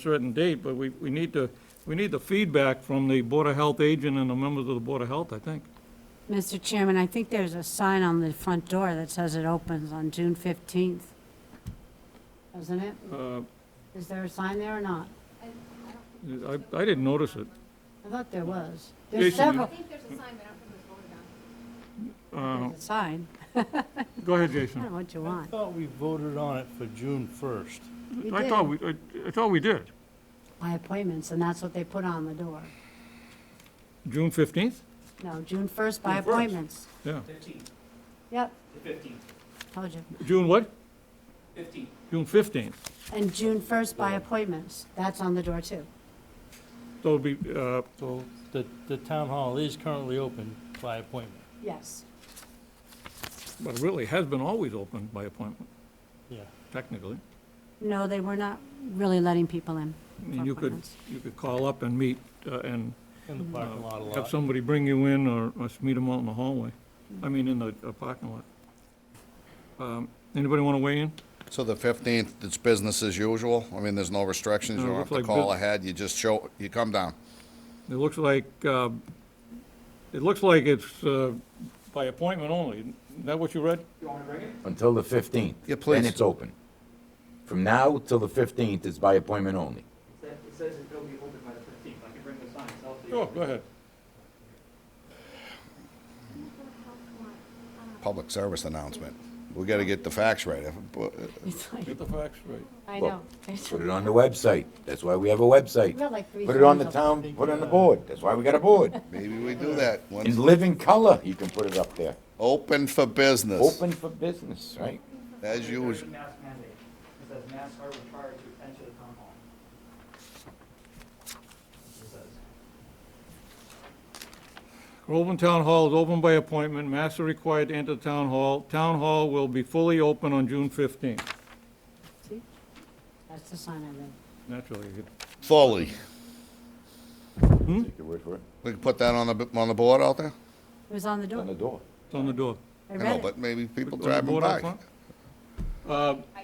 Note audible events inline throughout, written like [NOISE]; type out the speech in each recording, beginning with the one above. certain date, but we, we need to, we need the feedback from the Board of Health agent and the members of the Board of Health, I think. Mr. Chairman, I think there's a sign on the front door that says it opens on June 15th. Doesn't it? Uh, Is there a sign there or not? I, I didn't notice it. I thought there was. Jason, There's you- I several. think there's a sign, but I don't think it was voted on. Uh, There's a sign. Go ahead, I don't Jason. know what you I want. thought we voted on it for June 1st. You I did. thought we, I I thought we did. My appointments, and that's what they put on the door. June 15th? No, June 1st by June 1st. appointments. Yeah. Fifteenth, Yep, the fifteenth, told you. June what? fifteenth. June 15th. And June 1st Oh. by appointments. That's on the door, too. So it'll be, uh, So the, the town hall is currently open by appointment. Yes. but it really has been always open by appointment, Yeah. technically. No, they were not really letting people in. [LAUGHS] I mean, you could, you could call up and meet uh, and In the parking lot a have lot. somebody bring you in or us meet them out in the hallway. I mean, in the uh, parking lot. Um, Anybody want to weigh in? So the 15th, it's business as usual? I mean, there's no restrictions, No, you it don't have looks to like call bus- ahead, you just show, you come down. It looks like, uh, it looks like it's uh, by appointment only. Is that what you read? Until the 15th. Yeah, please. Then it's open. From now till the 15th, it's by appointment only. It says, it says it'll be open by the fifteenth, I can bring the signs out to you. Sure, Oh, go ahead. Public service announcement. We gotta get the facts right. If- uh, but- It's like, Get the facts straight. I Well, know. Put it on the website. That's why we have a website. We have like three Put it on the signs up. town, put it on the board. That's why we got a board. Maybe we do that. In Once- living color, you can put it up there. Open for business, Open for business, right? as usual. Mask mandate, it says masks are required to attend to the town hall. It says. Groveland Town Hall is open by appointment. Masks are required to enter the town hall. Town hall will be fully open on June 15th. See? That's the sign I read. Naturally, it- Fully. Take your word for it. We can put that on the, b- on the board out there? It was on the It's on the door. door. it's on the door. I I know, read it. but maybe people On the driving board out by. front? Uh, I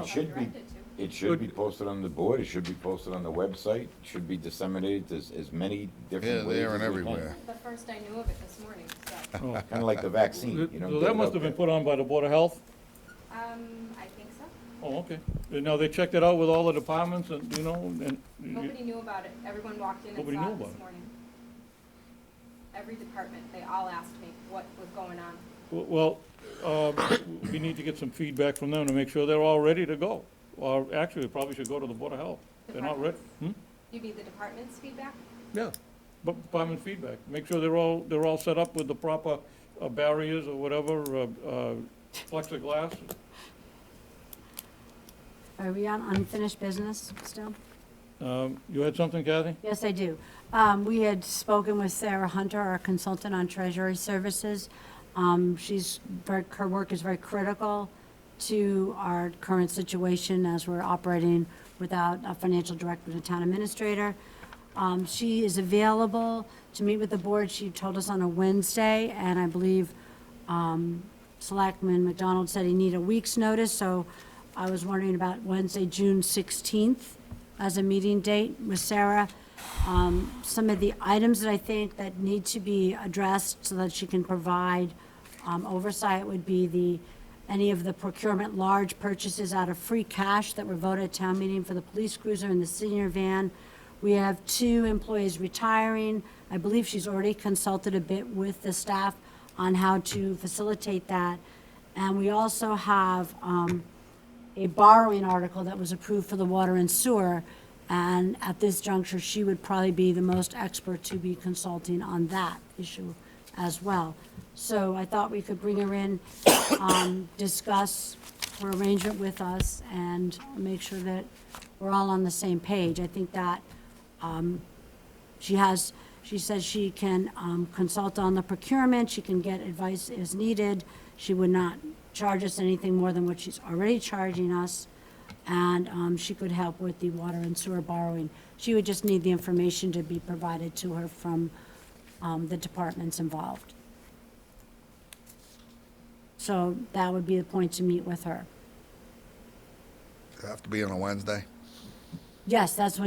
It should be, directed to. it should be posted on the board. It should be posted on the website. It should be disseminated as, as many Here, different ways there and as we can. everywhere. The first I knew of it this morning, so, oh. Kinda like the vaccine, you know? So get it that must out have been there. put on by the Board of Health? um, I think so. Oh, okay. Now, they checked it out with all the departments and, you know, and... Nobody knew about it. Everyone walked in and Nobody saw knew it about it. this morning. Every department, they all asked me what was going on. Well, uh, we need to get some feedback from them to make sure they're all ready to go. Or actually, we probably should go to the Board of Health. They're not ready. Hmm? You need the department's feedback? Yeah. But department feedback, make sure they're all, they're all set up with the proper uh, barriers or whatever, uh, uh, plexiglass. Are we on unfinished business still? Um, You had something, Kathy? Yes, I do. Um, We had spoken with Sarah Hunter, our consultant on treasury services. Um, She's, very- her work is very critical to our current situation as we're operating without a financial director and a town administrator. Um, She is available to meet with the board. She told us on a Wednesday, and I believe um, Selectman McDonald said he need a week's notice, so I was wondering about Wednesday, June 16th as a meeting date with Sarah. Um, Some of the items that I think that need to be addressed so that she can provide um, oversight would be the, any of the procurement large purchases out of free cash that were voted at town meeting for the police cruiser and the senior van. We have two employees retiring. I believe she's already consulted a bit with the staff on how to facilitate that. And we also have um, a borrowing article that was approved for the water and sewer. And at this juncture, she would probably be the most expert to be consulting on that issue as well. So I thought we could bring her in, um, discuss her arrangement with us and make sure that we're all on the same page. I think that she has, she says she can um, consult on the procurement, she can get advice as needed. She would not charge us anything more than what she's already charging us. And um, she could help with the water and sewer borrowing. She would just need the information to be provided to her from um, the departments involved. So that would be the point to meet with her. Have to be on a Wednesday. Yes, that's when